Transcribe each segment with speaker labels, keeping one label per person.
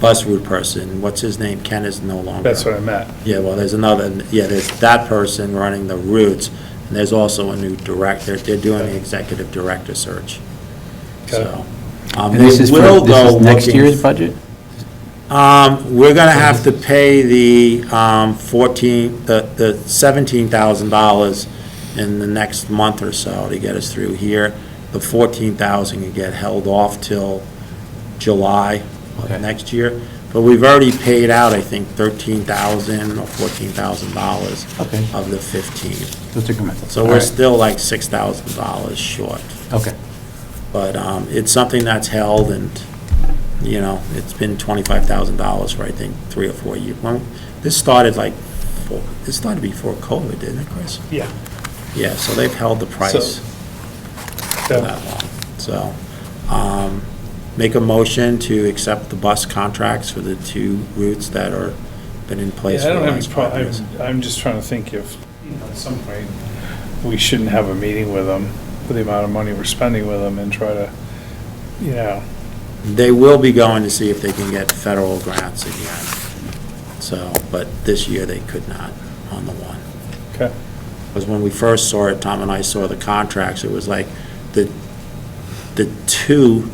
Speaker 1: Buswood person, what's his name? Ken is no longer.
Speaker 2: That's what I meant.
Speaker 1: Yeah, well, there's another, yeah, there's that person running the routes, and there's also a new director, they're doing the executive director search.
Speaker 2: Okay.
Speaker 1: So, um,
Speaker 3: And
Speaker 1: they
Speaker 3: this is for,
Speaker 1: will
Speaker 3: this
Speaker 1: go
Speaker 3: is next
Speaker 1: looking-
Speaker 3: year's budget?
Speaker 1: Um, we're gonna have to pay the, um, fourteen, the, the seventeen thousand dollars in the next month or so to get us through here. The fourteen thousand can get held off till July of
Speaker 3: Okay.
Speaker 1: next year. But we've already paid out, I think, thirteen thousand or fourteen thousand dollars
Speaker 3: Okay.
Speaker 1: of the fifteen.
Speaker 3: Just incremental.
Speaker 1: So we're still like six thousand dollars short.
Speaker 3: Okay.
Speaker 1: But um, it's something that's held and, you know, it's been twenty-five thousand dollars for, I think, three or four years. Well, this started like, four- this started before COVID, didn't it, Chris?
Speaker 2: Yeah.
Speaker 1: Yeah, so they've held the price for
Speaker 2: So,
Speaker 1: that long. So, um, make a motion to accept the bus contracts for the two routes that are, been in
Speaker 2: yeah,
Speaker 1: place
Speaker 2: I
Speaker 1: for the
Speaker 2: don't have any
Speaker 1: last five
Speaker 2: problem,
Speaker 1: years.
Speaker 2: I'm just trying to think if, you know, at some point, we shouldn't have a meeting with them, with the amount of money we're spending with them and try to, you know,
Speaker 1: They will be going to see if they can get federal grants again. So, but this year they could not on the one.
Speaker 2: okay,
Speaker 1: Because when we first saw it, Tom and I saw the contracts, it was like the, the two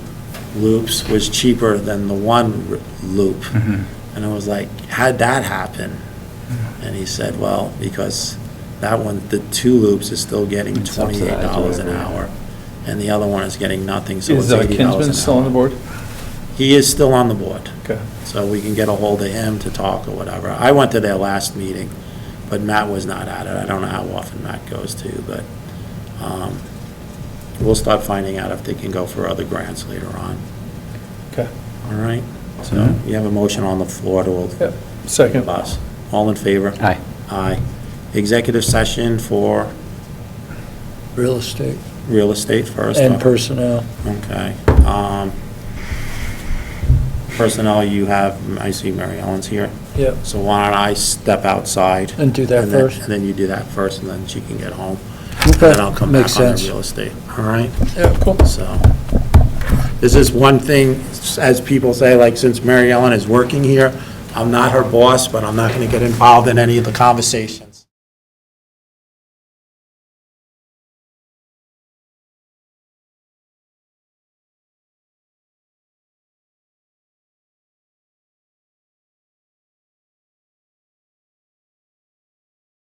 Speaker 1: loops was cheaper than the one r- loop.
Speaker 3: Mm-hmm.
Speaker 1: And I was like, how'd that happen? And he said, well, because that one, the two loops is still getting
Speaker 3: It's subsidized,
Speaker 1: twenty-eight dollars an
Speaker 3: whatever.
Speaker 1: hour. And the other one is getting nothing, so
Speaker 2: Is
Speaker 1: it's
Speaker 2: uh,
Speaker 1: eighty dollars
Speaker 2: Kinsman
Speaker 1: an
Speaker 2: still on the
Speaker 1: hour.
Speaker 2: board?
Speaker 1: He is still on the board.
Speaker 2: Okay.
Speaker 1: So we can get a hold of him to talk or whatever. I went to their last meeting, but Matt was not at it. I don't know how often Matt goes to, but um, we'll start finding out if they can go for other grants later on.
Speaker 2: Okay.
Speaker 1: All right? So
Speaker 3: Mhm.
Speaker 1: you have a motion on the floor to
Speaker 2: Yep. Second.
Speaker 1: bus. All in favor?
Speaker 3: Aye.
Speaker 1: Aye. Executive session for
Speaker 4: real estate
Speaker 1: real estate first.
Speaker 4: and personnel.
Speaker 1: Okay. um, Personnel, you have, I see Mary Ellen's here.
Speaker 4: Yep.
Speaker 1: So why don't I step outside?
Speaker 4: And do that
Speaker 1: then-
Speaker 4: first.
Speaker 1: And then you do that first, and then she can get home. And
Speaker 4: Okay,
Speaker 1: then I'll come
Speaker 4: makes
Speaker 1: back on the
Speaker 4: sense.
Speaker 1: real estate, all right?
Speaker 4: Yeah, cool.
Speaker 1: So, this is one thing, as people say, like, since Mary Ellen is working here, I'm not her boss, but I'm not gonna get involved in any of the conversation.